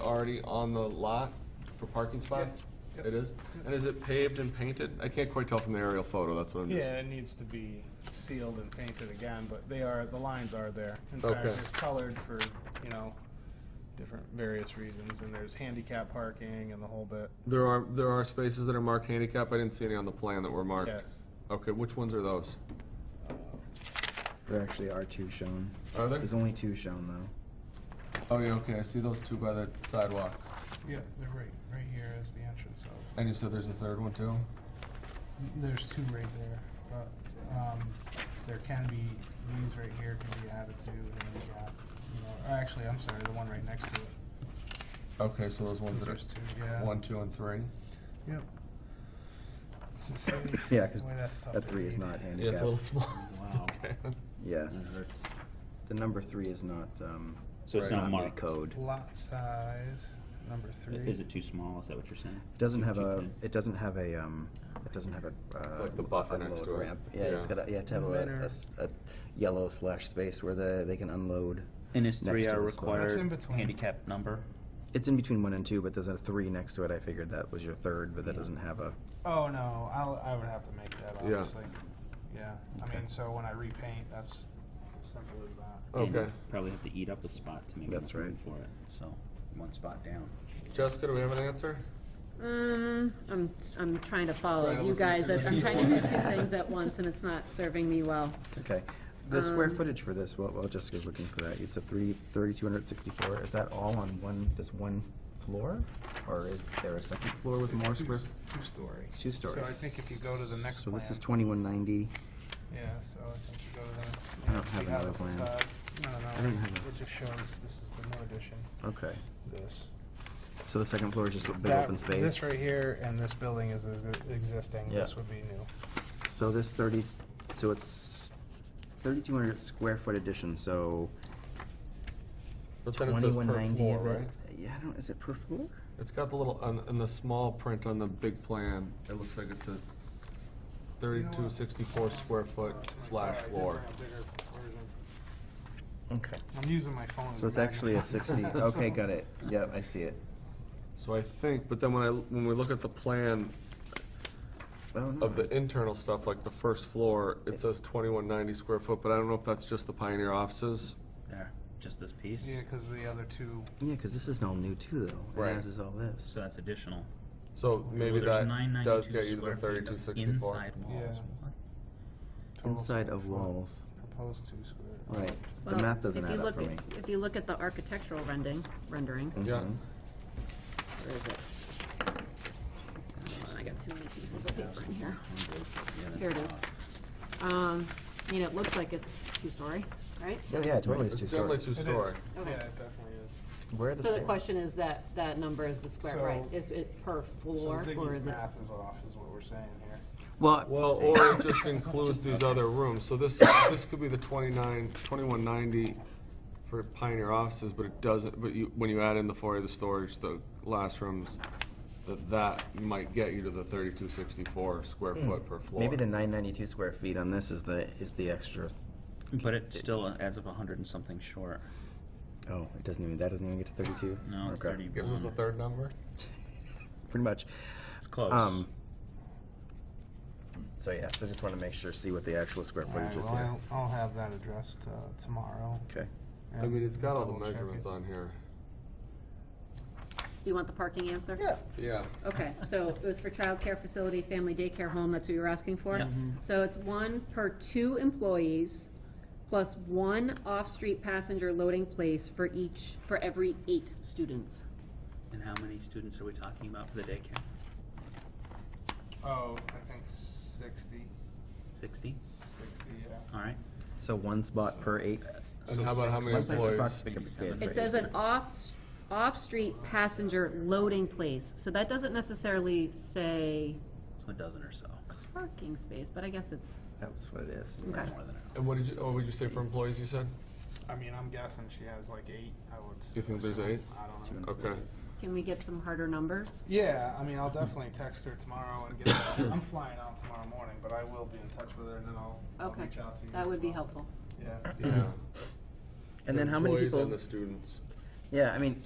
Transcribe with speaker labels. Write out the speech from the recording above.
Speaker 1: already on the lot for parking spots?
Speaker 2: Yep.
Speaker 1: It is? And is it paved and painted? I can't quite tell from the aerial photo, that's what I'm just.
Speaker 2: Yeah, it needs to be sealed and painted again, but they are, the lines are there. In fact,
Speaker 1: Okay.
Speaker 2: it's colored for, you know, different, various reasons, and there's handicap parking and the whole bit.
Speaker 1: There are, there are spaces that are marked handicap, I didn't see any on the plan that were marked.
Speaker 2: Yes.
Speaker 1: Okay, which ones are those?
Speaker 3: There actually are two shown.
Speaker 1: Are there?
Speaker 3: There's only two shown though.
Speaker 1: Oh, yeah, okay, I see those two by the sidewalk.
Speaker 2: Yeah, they're right, right here is the entrance of.
Speaker 1: And you said there's a third one too?
Speaker 2: There's two right there, but, um, there can be, these right here can be added to, and you got, you know, or actually, I'm sorry, the one right next to it.
Speaker 1: Okay, so those ones that are.
Speaker 2: There's two, yeah.
Speaker 1: One, two, and three?
Speaker 2: Yep.
Speaker 3: Yeah, because that three is not
Speaker 1: Yeah,
Speaker 3: handicapped.
Speaker 1: it's a little small. It's
Speaker 4: Wow.
Speaker 1: okay.
Speaker 3: Yeah,
Speaker 4: That hurts.
Speaker 3: the number three is not, um,
Speaker 4: So it's
Speaker 3: it's
Speaker 4: not
Speaker 3: not
Speaker 4: marked.
Speaker 3: the code.
Speaker 2: Lot size, number three.
Speaker 4: Is it too small? Is that what you're saying?
Speaker 3: It doesn't have a,
Speaker 4: Two- two-
Speaker 3: it doesn't have a, um, it doesn't have a, uh.
Speaker 1: Like the buffer next
Speaker 3: unload
Speaker 1: to it.
Speaker 3: ramp. Yeah, it's
Speaker 1: Yeah.
Speaker 3: got a, you have to have a,
Speaker 2: Better.
Speaker 3: a s- a yellow slash space where the, they can unload.
Speaker 4: And is
Speaker 3: next
Speaker 4: three
Speaker 3: to
Speaker 4: our
Speaker 3: the slope.
Speaker 2: That's in
Speaker 4: required
Speaker 2: between.
Speaker 4: handicap number?
Speaker 3: It's in between one and two, but there's a three next to it. I figured that was your third, but that doesn't have a,
Speaker 2: Oh, no, I'll, I would have to make that,
Speaker 1: Yeah.
Speaker 2: obviously. Yeah, I mean, so when I repaint, that's as simple as that.
Speaker 4: And
Speaker 1: Okay.
Speaker 4: Probably have to eat up a spot to make
Speaker 3: That's
Speaker 4: enough room
Speaker 3: right.
Speaker 4: for it, so, one spot down.
Speaker 1: Jessica, do we have an answer?
Speaker 5: Um, I'm, I'm trying to follow
Speaker 1: Trying to
Speaker 5: you
Speaker 1: listen to
Speaker 5: guys.
Speaker 1: two
Speaker 5: I'm
Speaker 1: things
Speaker 5: trying to do
Speaker 1: at
Speaker 5: two things at once and it's not serving me well.
Speaker 3: okay. The square
Speaker 5: Um,
Speaker 3: footage for this, well, well, Jessica's looking for that. It's a three, thirty-two hundred sixty-four. Is that all on one, this one floor? Or is there a second floor with more square?
Speaker 2: Two-story.
Speaker 3: Two stories.
Speaker 2: So I think if you go to the next
Speaker 3: So
Speaker 2: plan.
Speaker 3: this is twenty-one ninety.
Speaker 2: Yeah, so I think you go to the.
Speaker 3: I don't have
Speaker 2: see how
Speaker 3: another
Speaker 2: the
Speaker 3: plan.
Speaker 2: facade- No,
Speaker 3: I
Speaker 2: no,
Speaker 3: don't
Speaker 2: no,
Speaker 3: have a-
Speaker 2: it just shows, this is the new addition,
Speaker 3: Okay.
Speaker 2: this.
Speaker 3: So the second floor is just a big
Speaker 2: That-
Speaker 3: open space.
Speaker 2: This right here and this building is e- existing,
Speaker 3: Yeah.
Speaker 2: this would be new.
Speaker 3: So this thirty, so it's thirty-two hundred square foot addition, so
Speaker 1: But then it says
Speaker 3: twenty-one
Speaker 1: per
Speaker 3: ninety.
Speaker 1: floor, right?
Speaker 3: Yeah, I don't, is it per floor?
Speaker 1: It's got the little, on, in the small print on the big plan, it looks like it says thirty-two sixty-four square foot slash floor.
Speaker 3: Okay.
Speaker 2: I'm using my phone. as
Speaker 3: So it's
Speaker 2: a
Speaker 3: actually a sixty,
Speaker 2: magnifying
Speaker 3: okay,
Speaker 2: glass.
Speaker 3: got it. Yep, I see it.
Speaker 1: So I think, but then when I, when we look at the plan
Speaker 3: Oh, no.
Speaker 1: of the internal stuff, like the first floor, it says twenty-one ninety square foot, but I don't know if that's just the Pioneer offices.
Speaker 4: There, just this piece?
Speaker 2: Yeah, because the other two,
Speaker 3: Yeah, because this is all new too, though,
Speaker 1: Right.
Speaker 3: and as is all this.
Speaker 4: So that's additional.
Speaker 1: So maybe
Speaker 4: So there's
Speaker 1: that
Speaker 4: 992
Speaker 1: does get you to the
Speaker 4: square feet
Speaker 1: thirty-two
Speaker 4: of
Speaker 1: sixty-four.
Speaker 4: Inside walls.
Speaker 2: Yeah.
Speaker 4: What?
Speaker 2: total
Speaker 3: Inside of
Speaker 2: square foot.
Speaker 3: walls,
Speaker 2: proposed two square.
Speaker 3: right. The
Speaker 5: Well,
Speaker 3: map doesn't
Speaker 5: if you
Speaker 3: add up
Speaker 5: look
Speaker 3: for
Speaker 5: at-
Speaker 3: me.
Speaker 5: If you look at the architectural rendering, rendering,
Speaker 1: Yeah,
Speaker 3: Mhm.
Speaker 5: where is it? Hold on, I got too many pieces of paper in here.
Speaker 4: Yeah, that's
Speaker 5: Here it
Speaker 4: a
Speaker 5: is.
Speaker 4: lot.
Speaker 5: Um, I mean, it looks like it's two-story, right?
Speaker 3: Oh, yeah, totally, it's
Speaker 1: it's
Speaker 3: two
Speaker 1: definitely
Speaker 3: stories.
Speaker 1: two-story.
Speaker 2: Yeah, it definitely is.
Speaker 3: Where are the
Speaker 5: So the
Speaker 3: stairs?
Speaker 5: question is that, that number is the square,
Speaker 2: So-
Speaker 5: right? Is it per floor
Speaker 2: So
Speaker 5: or
Speaker 2: Ziggy's
Speaker 5: is it?
Speaker 2: math is off, is what we're saying here.
Speaker 3: Well,
Speaker 1: Well, or it just includes these other rooms, so this, this could be the twenty-nine, twenty-one ninety for Pioneer offices, but it doesn't, but you, when you add in the four of the storage, the last rooms, that, that might get you to the thirty-two sixty-four square foot per floor.
Speaker 3: Hmm. maybe the nine ninety-two square feet on this is the, is the extra,
Speaker 4: But it still adds up a hundred and something short.
Speaker 3: oh, it doesn't even, that doesn't even get to thirty-two?
Speaker 4: No, it's
Speaker 3: Okay.
Speaker 1: Gives us a
Speaker 4: thirty-one.
Speaker 3: Hmm.
Speaker 1: third number?
Speaker 3: Pretty much.
Speaker 4: It's close.
Speaker 3: Um, so yeah, so just want to make sure, see what the actual square
Speaker 2: All right,
Speaker 3: footage is
Speaker 2: well,
Speaker 3: here.
Speaker 2: I'll, I'll have that addressed uh, tomorrow.
Speaker 3: Okay.
Speaker 1: I mean, it's got all the
Speaker 2: double check it.
Speaker 1: measurements on here.
Speaker 5: Do you want the parking answer?
Speaker 1: Yeah.
Speaker 5: Okay, so it was for childcare facility, family daycare home, that's what you were asking for?
Speaker 4: Yeah. Mhm.
Speaker 5: So it's one per two employees, plus one off-street passenger loading place for each, for every eight students.
Speaker 4: And how many students are we talking about for the daycare?
Speaker 2: Oh, I think 60,
Speaker 4: Sixty?
Speaker 2: 60, yeah.
Speaker 4: All right.
Speaker 3: So one spot per eight.
Speaker 1: And how about how many
Speaker 3: One place to park,
Speaker 1: employees?
Speaker 3: pick up a kid.
Speaker 5: It
Speaker 3: for
Speaker 5: says
Speaker 3: eight
Speaker 5: an
Speaker 3: kids.
Speaker 5: off, off-street passenger loading place, so that doesn't necessarily say
Speaker 4: So a dozen or so.
Speaker 5: parking space, but I guess it's,
Speaker 3: That's what it is.
Speaker 5: okay.
Speaker 4: More than enough.
Speaker 1: And what did you, oh, what did you say for employees, you said?
Speaker 2: I mean, I'm guessing she has like eight, I would.
Speaker 1: You think there's
Speaker 2: assume.
Speaker 1: eight?
Speaker 2: I don't know.
Speaker 1: Okay.
Speaker 5: Can we get some harder numbers?
Speaker 2: Yeah, I mean, I'll definitely text her tomorrow and get, that. I'm flying out tomorrow morning, but I will be in touch with her and then I'll, I'll
Speaker 5: Okay,
Speaker 2: reach out to you.
Speaker 5: that
Speaker 2: as
Speaker 5: would be
Speaker 2: well.
Speaker 5: helpful.
Speaker 2: Yeah.
Speaker 1: Yeah.
Speaker 3: And then how many
Speaker 1: Employees
Speaker 3: people?
Speaker 1: and the students.
Speaker 3: Yeah, I mean,